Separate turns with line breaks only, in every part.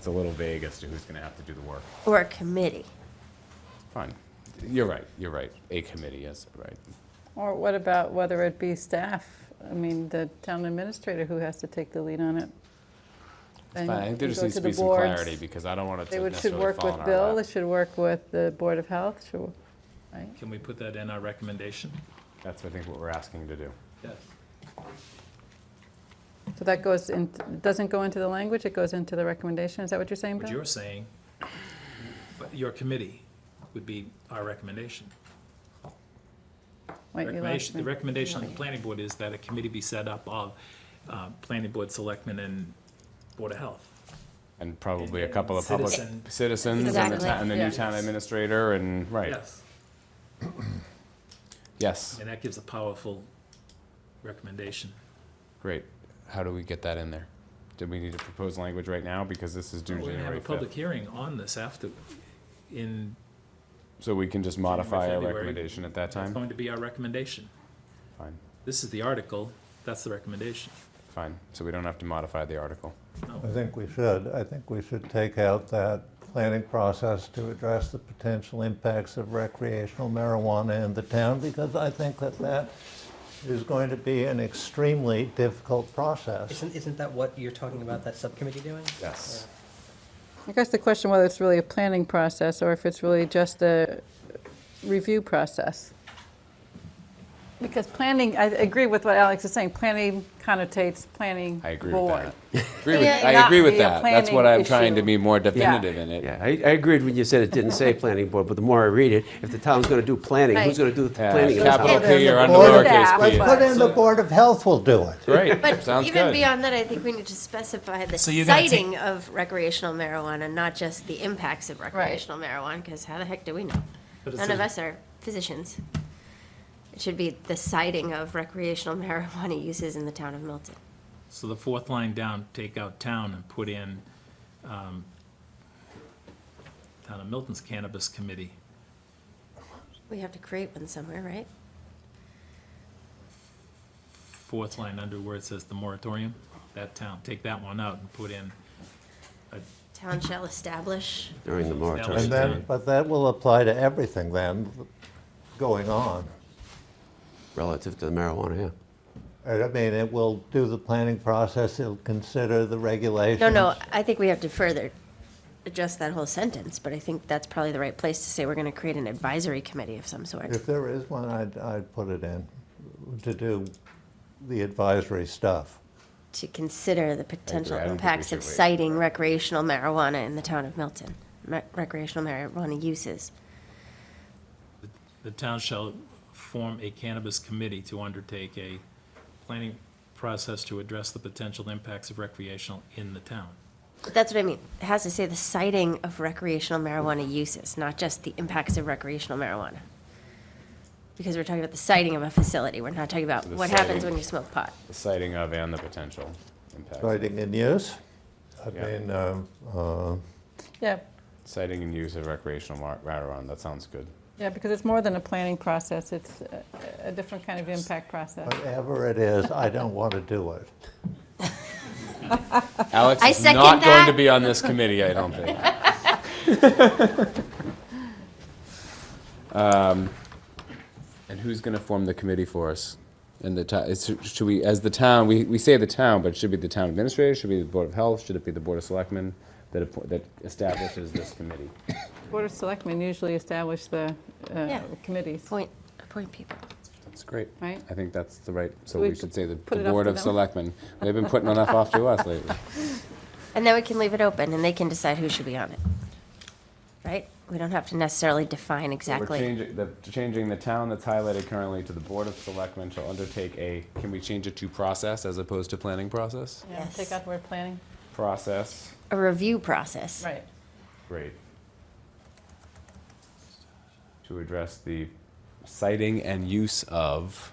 It's a little vague as to who's going to have to do the work.
Or a committee.
Fine. You're right, you're right. A committee, yes, right.
Or what about whether it be staff? I mean, the town administrator who has to take the lead on it.
It's
And
fine. I think there
you
just
go
needs to
the
be some
boards.
clarity because I don't want it
They
to
would, should
necessarily
work
fall on
with
our
Bill, they
lap.
should work with the Board of Health, should, right?
Can we put that in our recommendation?
That's, I think, what we're asking to do.
Yes.
So that goes in, doesn't go into the language, it goes into the recommendation, is that what you're saying,
What
Bill?
you're saying, but your committee would be our recommendation.
Wait, you lost
Recommendation,
me.
the recommendation on the planning board is that a committee be set up of uh, planning board, selectmen, and board of health.
And probably a couple of public
Citizen.
citizens and the
Exactly.
ta- and the new
Yeah.
town administrator and, right.
Yes,
Yes,
and that gives a powerful recommendation.
great. How do we get that in there? Do we need to propose language right now? Because this is due
We're gonna have a
January
public
5th.
hearing on this after, in,
So we can just modify our
February.
recommendation at that
it's
time?
going to be our recommendation.
Fine,
This is the article, that's the recommendation.
fine. So we don't have to modify the article.
No.
I think we should. I think we should take out that planning process to address the potential impacts of recreational marijuana in the town, because I think that that is going to be an extremely difficult process.
Isn't, isn't that what you're talking about, that subcommittee doing?
Yes.
I guess the question whether it's really a planning process or if it's really just a review process. Because planning, I agree with what Alex is saying, planning connotates planning
I agree
board.
with that. Agree with-
Yeah,
not
I agree
be
with
a
that. That's what
planning
I'm trying to
issue.
be more definitive in it.
Yeah, I, I agreed when you said it didn't say planning board, but the more I read it, if the town's gonna do planning,
Right.
who's gonna do the
Yeah,
planning? in the
Capital
town?
Well, then
P
the
or under
board
of
lowercase
that
p.
was-
Put in the Board of Health will do it.
Great,
But
sounds
even
good.
beyond that, I think we need to specify the
So you're gonna
citing of recreational marijuana, not just the impacts of recreational marijuana, because how the heck do we know?
But it
None of
says-
us are physicians. It should be the citing of recreational marijuana uses in the town of Milton.
So the fourth line down, take out town and put in, um, Town of Milton's Cannabis Committee.
We have to create one somewhere, right?
Fourth line under where it says the moratorium, that town, take that one out and put in,
Town shall establish.
During the
Establish-
moratorium.
And then, but that will apply to everything then, going on.
Relative to the marijuana, yeah.
I mean, it will do the planning process, it'll consider the regulations.
No, no, I think we have to further adjust that whole sentence, but I think that's probably the right place to say we're gonna create an advisory committee of some sort.
If there is one, I'd, I'd put it in, to do the advisory stuff.
to consider the potential
I don't think we
impacts of
should wait.
citing recreational marijuana in the town of Milton, Ma- recreational marijuana uses.
the town shall form a cannabis committee to undertake a planning process to address the potential impacts of recreational in the town.
That's what I mean. It has to say the citing of recreational marijuana uses, not just the impacts of recreational marijuana. Because we're talking about the citing of a facility. We're not talking about
The
what happens
siting.
when you smoke pot.
The citing of and the potential impact.
Citing in use? I
Yeah.
mean, um, uh,
Yeah,
Citing and use of recreational mar- marijuana, that sounds good.
yeah, because it's more than a planning process, it's a- a different kind of impact process.
whatever it is, I don't want to do it.
Alex
I
is
second
not going to
that.
be on this committee, I don't think. Um, And who's going to form the committee for us? And the, ti- is- should we, as the town, we, we say the town, but it should be the town administrator, should be the Board of Health, should it be the Board of Selectmen that, appo- that establishes this committee?
Board of Selectmen usually establish the uh,
Yeah.
committees.
Point, appoint people.
That's great.
Right.
I think that's the right, so
We
we should say the
put
the
it up
Board
to
of
them.
Selectmen. They've been putting enough off to us lately.
And then we can leave it open and they can decide who should be on it. Right? We don't have to necessarily define exactly.
We're changing the, changing the town that's highlighted currently to the Board of Selectmen shall undertake a, can we change it to process as opposed to planning process?
Yeah,
Yes.
Take out the word planning,
Process,
A review process.
right.
great. To address the citing and use of,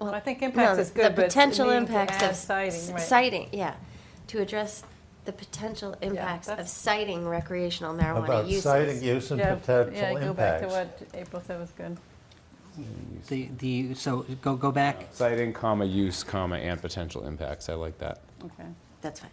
Well, I think
No,
impacts
the
is good,
the
but
potential
needing to
impacts
add
of
citing, right.
citing, yeah, to address the potential impacts of
that's-
citing recreational marijuana
About
uses.
citing use and
Yeah,
potential
Yeah, go back to
impacts.
what April said was good.
The, the, so go, go back,
citing, comma, use, comma, and potential impacts, I like that.
Okay.
That's fine.